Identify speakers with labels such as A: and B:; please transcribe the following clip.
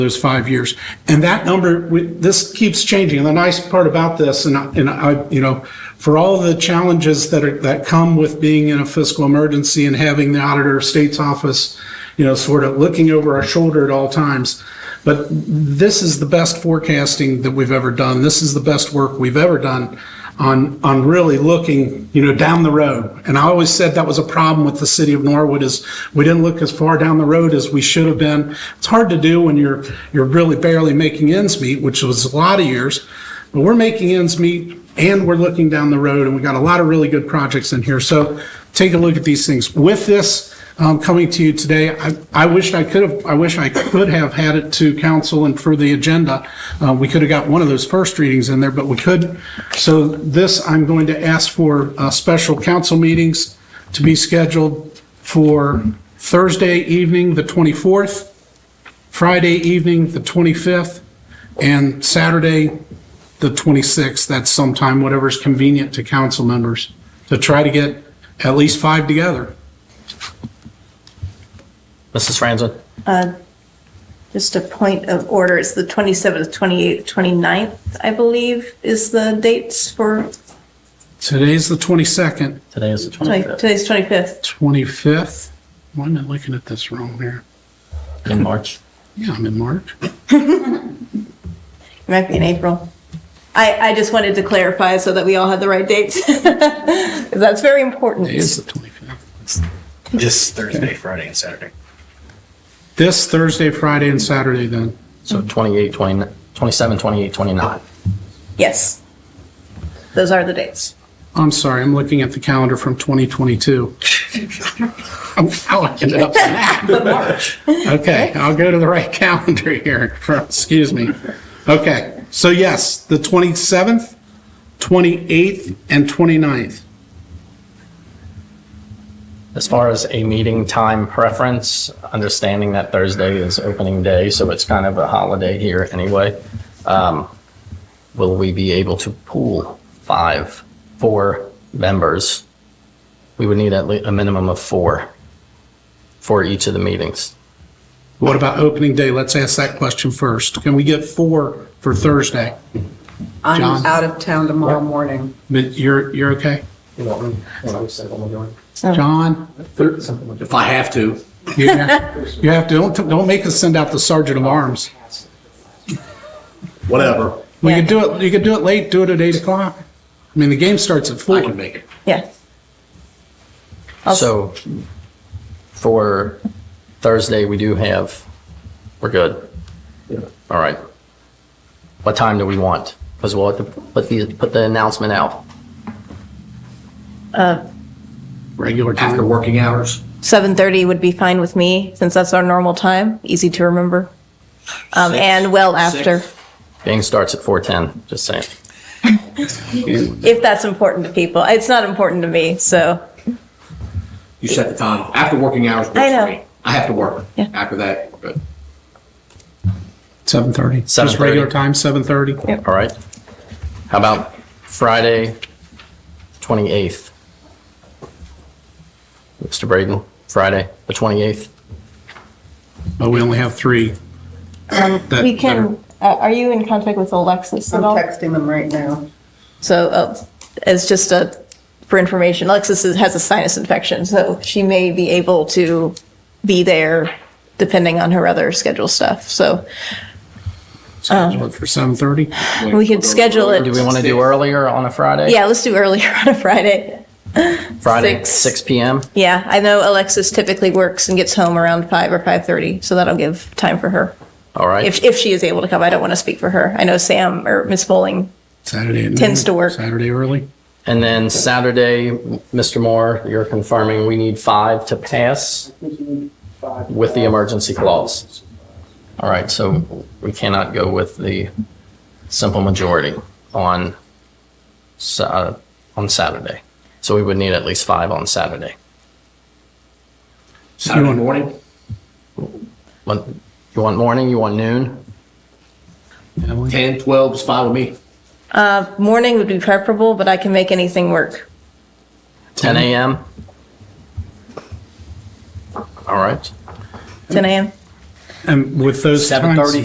A: those five years. And that number, we- this keeps changing. And the nice part about this, and I, and I, you know, for all the challenges that are, that come with being in a fiscal emergency and having the auditor of state's office, you know, sort of looking over our shoulder at all times. But this is the best forecasting that we've ever done. This is the best work we've ever done on, on really looking, you know, down the road. And I always said that was a problem with the city of Norwood is we didn't look as far down the road as we should have been. It's hard to do when you're, you're really barely making ends meet, which was a lot of years. But we're making ends meet and we're looking down the road and we got a lot of really good projects in here. So take a look at these things. With this, um, coming to you today. I, I wish I could have, I wish I could have had it to council and for the agenda. Uh, we could have got one of those first readings in there, but we couldn't. So this, I'm going to ask for, uh, special council meetings to be scheduled for Thursday evening, the 24th, Friday evening, the 25th, and Saturday, the 26th. That's sometime, whatever's convenient to council members, to try to get at least five together.
B: Mrs. Franzen?
C: Just a point of order, it's the 27th, 28th, 29th, I believe, is the dates for,
A: Today's the 22nd,
B: Today is the
C: sorry,
B: 25th
C: today's 25th.
A: 25th. Why am I looking at this wrong here?
B: in March.
A: Yeah, I'm in March.
C: It might be in April. I, I just wanted to clarify so that we all had the right dates. 'Cause That's very important.
A: It is the 25th.
D: This Thursday, Friday, and Saturday.
A: This Thursday, Friday, and Saturday then.
B: So 28, 29, 27, 28, 29.
C: Yes. Those are the dates.
A: I'm sorry, I'm looking at the calendar from 2022. I'm- How I ended up
C: But March.
A: Okay, I'll go to the right calendar here. Excuse me. Okay, so yes, the 27th, 28th, and 29th.
B: As far as a meeting time preference, understanding that Thursday is opening day, so it's kind of a holiday here anyway. um, Will we be able to pool five, four members? We would need at least a minimum of four for each of the meetings.
A: What about opening day? Let's ask that question first. Can we get four for Thursday? John?
E: I'm out of town tomorrow morning.
A: But you're, you're okay?
B: You know what I'm saying?
E: Oh.
A: John?
D: If I have to.
A: You have you have to, don't, don't make us send out the sergeant of arms.
D: Whatever.
A: We could do it, you could do it late, do it at 8 o'clock. I mean, the game starts at 4.
D: I can make it.
C: Yeah.
B: So for Thursday, we do have, we're good. All right. What time do we want? Because we'll have to put the, put the announcement out.
A: Regular
D: After
A: time.
D: working hours.
C: 7:30 would be fine with me, since that's our normal time, easy to remember. Um, And well after,
D: Six.
B: Game starts at 4:10, just saying.
C: if that's important to people. It's not important to me, so.
D: You set the time. After working hours works
C: I know.
D: for me. I have to work.
C: Yeah.
D: After that, but
A: 7:30. Just
B: 7:30.
A: regular time, 7:30.
B: All right? How about Friday, 28th? Mr. Braden, Friday, the 28th?
A: But we only have three. That-
C: Um, We can, uh, are you in contact with Alexis
E: I'm
C: at all?
E: texting them right now.
C: So uh, it's just a, for information, Alexis is- has a sinus infection, so she may be able to be there depending on her other schedule stuff. So um,
A: Schedule it For 7:30.
C: we could schedule it.
B: Do we want to do earlier on a Friday?
C: Yeah, let's do earlier on a Friday.
B: Friday,
C: six.
B: 6 PM?
C: Yeah, I know Alexis typically works and gets home around five or 5:30, so that'll give time for her.
B: All right?
C: If, if she is able to come, I don't want to speak for her. I know Sam or Miss Bowling.
A: Saturday. at
C: Tends
A: noon,
C: to work.
A: Saturday early.
B: And then Saturday, Mr. Moore, you're confirming we need five to pass with the emergency clause. All right, so we cannot go with the simple majority on, Sa- uh, on Saturday. So we would need at least five on Saturday.
D: Saturday morning,
B: Want- You want morning, you want noon?
A: Emily?
D: 10, 12 is fine with me.
C: Uh, Morning would be preferable, but I can make anything work.
B: 10 a.m.? All right.
C: 10 a.m.?
A: And with those times.
B: 7:30.